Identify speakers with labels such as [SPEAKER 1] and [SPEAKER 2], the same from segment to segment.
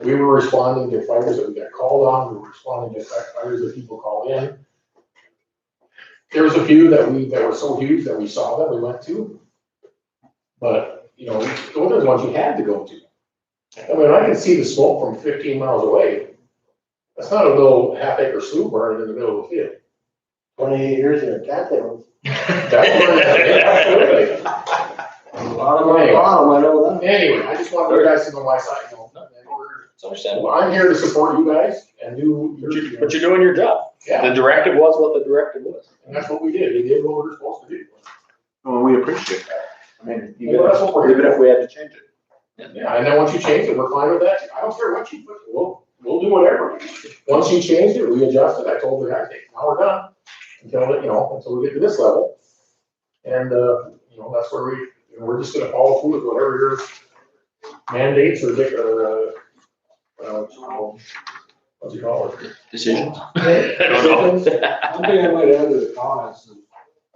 [SPEAKER 1] we were responding to fires that we got called on, we were responding to fi- fires that people called in. There was a few that we, that were so huge that we saw that we went to. But, you know, those are the ones you had to go to. I mean, I can see the smoke from fifteen miles away. That's not a little half acre slough burning in the middle of the field.
[SPEAKER 2] Twenty-eight years in a goddamn,
[SPEAKER 1] That's where- absolutely.
[SPEAKER 2] bottom of the bottom, I know that.
[SPEAKER 1] Anyway, I just wanted you guys to know my side, you know, and we're-
[SPEAKER 3] It's understandable.
[SPEAKER 1] well, I'm here to support you guys and do your,
[SPEAKER 3] But you're, but you're doing your job.
[SPEAKER 1] yeah,
[SPEAKER 3] The directive was what the directive was.
[SPEAKER 1] and that's what we did, we did what we were supposed to do.
[SPEAKER 4] Well, we appreciate that. I mean, even
[SPEAKER 1] Well, that's what we're
[SPEAKER 4] if, even if we had to change it.
[SPEAKER 1] Yeah, and then once you change it, we're fine with that, I don't care what you put, we'll, we'll do whatever. Once you change it, we adjust it, I told the guys, hey, now we're done, until, you know, until we get to this level. And, uh, you know, that's where we, you know, we're just gonna follow through with whatever your mandates or, dic- or, uh, uh, what's it called? What's it called?
[SPEAKER 3] Decisions.
[SPEAKER 2] I
[SPEAKER 3] don't
[SPEAKER 2] One thing I might add to the comments, is,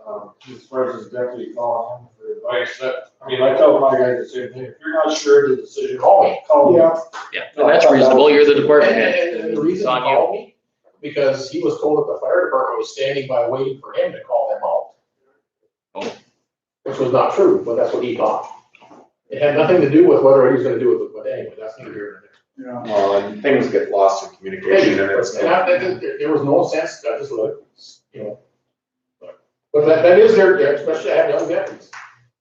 [SPEAKER 2] um, as far as his deputy calling him for advice, that, I mean, I tell my guys the same thing, if you're not sure of the decision, call me. Call me.
[SPEAKER 3] Yeah, no, that's reasonable. You're the department head.
[SPEAKER 1] And- And the reason he called me, because he was told that the fire department was standing by waiting for him to call them out.
[SPEAKER 3] Oh.
[SPEAKER 1] Which was not true, but that's what he thought. It had nothing to do with whether he was gonna do it, but anyway, that's neither here nor there.
[SPEAKER 4] Well, and things get lost in communication and it's.
[SPEAKER 1] And I, there- there, there was no sense, I just looked, you know. But- But that, that is their, their- especially I have young veterans.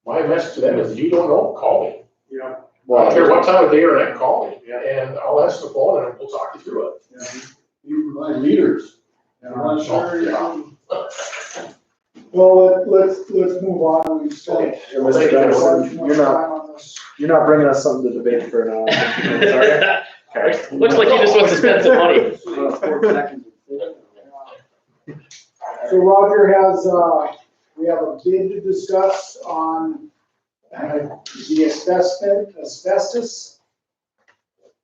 [SPEAKER 1] My message to them is, if you don't know, call me.
[SPEAKER 2] Yeah.
[SPEAKER 1] I
[SPEAKER 4] Well,
[SPEAKER 1] don't care what time of day or night, call me, and I'll answer the phone and we'll talk you through it.
[SPEAKER 2] You provide leaders.
[SPEAKER 1] Yeah.
[SPEAKER 5] Well, let, let's, let's move on, we spent.
[SPEAKER 4] Yeah, Mr. Dennison, you're not, you're not bringing us something to debate for an hour. Okay.
[SPEAKER 3] Looks like he just wants to spend some money.
[SPEAKER 5] So Roger has, uh, we have a bid to discuss on uh, the asbestos, asbestos.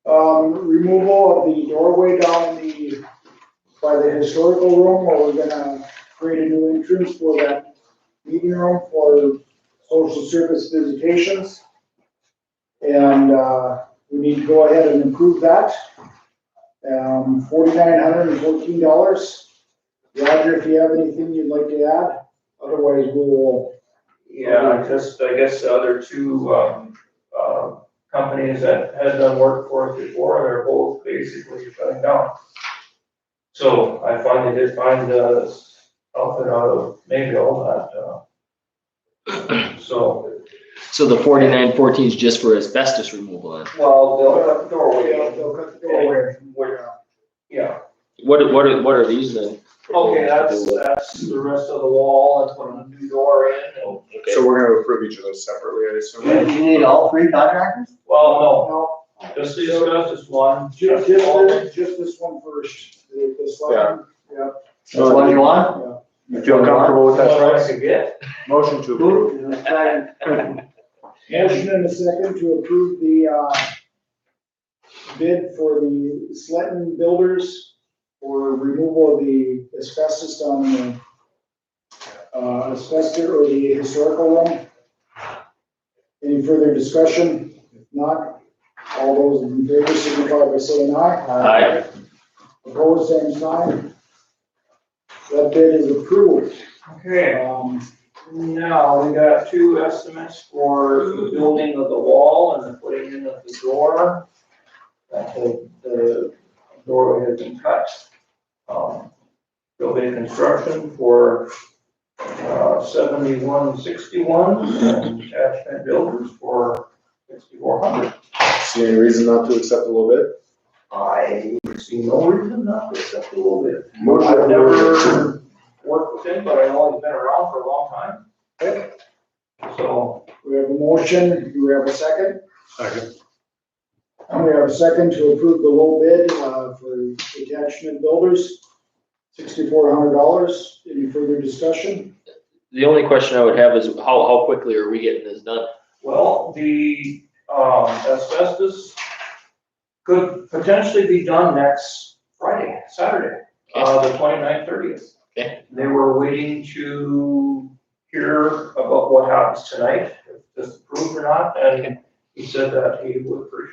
[SPEAKER 5] Um, removal of the doorway down the, by the historical room, where we're gonna create a new entrance for that meeting room for social service visitations. And, uh, we need to go ahead and improve that. Um, forty-nine hundred and fourteen dollars. Roger, if you have anything you'd like to add, otherwise we will.
[SPEAKER 6] Yeah, just, I guess, the other two, um, uh, companies that had done work for us before, they're both basically shutting down. So I finally did find, uh, outfit out of Mayville that, uh, so,
[SPEAKER 3] So the forty-nine fourteen is just for asbestos removal then?
[SPEAKER 6] well, they'll cut the doorway,
[SPEAKER 5] They'll cut the doorway.
[SPEAKER 6] in, where- yeah.
[SPEAKER 3] What, are- what are, what are these then?
[SPEAKER 6] Okay, that's,
[SPEAKER 3] uh,
[SPEAKER 6] that's the rest of the wall, that's what a new door in, and-
[SPEAKER 3] Okay.
[SPEAKER 4] So we're gonna approve each of those separately, I assume.
[SPEAKER 2] You need all three contractors?
[SPEAKER 6] well,
[SPEAKER 5] Now,
[SPEAKER 6] no, just the asbestos one.
[SPEAKER 5] ju- just, this- just this one first, the- this one, yeah.
[SPEAKER 2] That's the one you want?
[SPEAKER 4] You feel comfortable with that,
[SPEAKER 6] That's
[SPEAKER 4] Travis?
[SPEAKER 6] what I could get.
[SPEAKER 4] Motion to approve.
[SPEAKER 5] Motion and a second to approve the, uh, bid for the Sletton Builders for removal of the asbestos on the, uh, asbestos or the historical room. Any further discussion? If Not, all those in favor signify by saying aye.
[SPEAKER 3] Aye.
[SPEAKER 5] Opposed, same sign. That bid is approved.
[SPEAKER 6] Okay,
[SPEAKER 5] Um,
[SPEAKER 6] Now, we got two estimates for the building of the wall and the putting in of the door. That the, the doorway has been cut. Um, Building construction for, uh, seventy-one sixty-one and attachment builders for sixty-four hundred.
[SPEAKER 4] See any reason not to accept a little bit?
[SPEAKER 6] I see no reason not to accept a little bit.
[SPEAKER 4] Motion
[SPEAKER 6] I've
[SPEAKER 4] to
[SPEAKER 6] never worked with him, but I know he's been around for a long time. So,
[SPEAKER 5] we have a motion, do we have a second?
[SPEAKER 4] Second.
[SPEAKER 5] And we have a second to approve the low bid, uh, for attachment builders, sixty-four hundred dollars. Any further discussion?
[SPEAKER 3] The only question I would have is how, how quickly are we getting this done?
[SPEAKER 6] Well, the, um, asbestos could potentially be done next Friday, Saturday, uh, the 29th, thirtieth.
[SPEAKER 3] Okay.
[SPEAKER 6] They were waiting to hear about what happens tonight, if this is approved or not, and he said that he would appreciate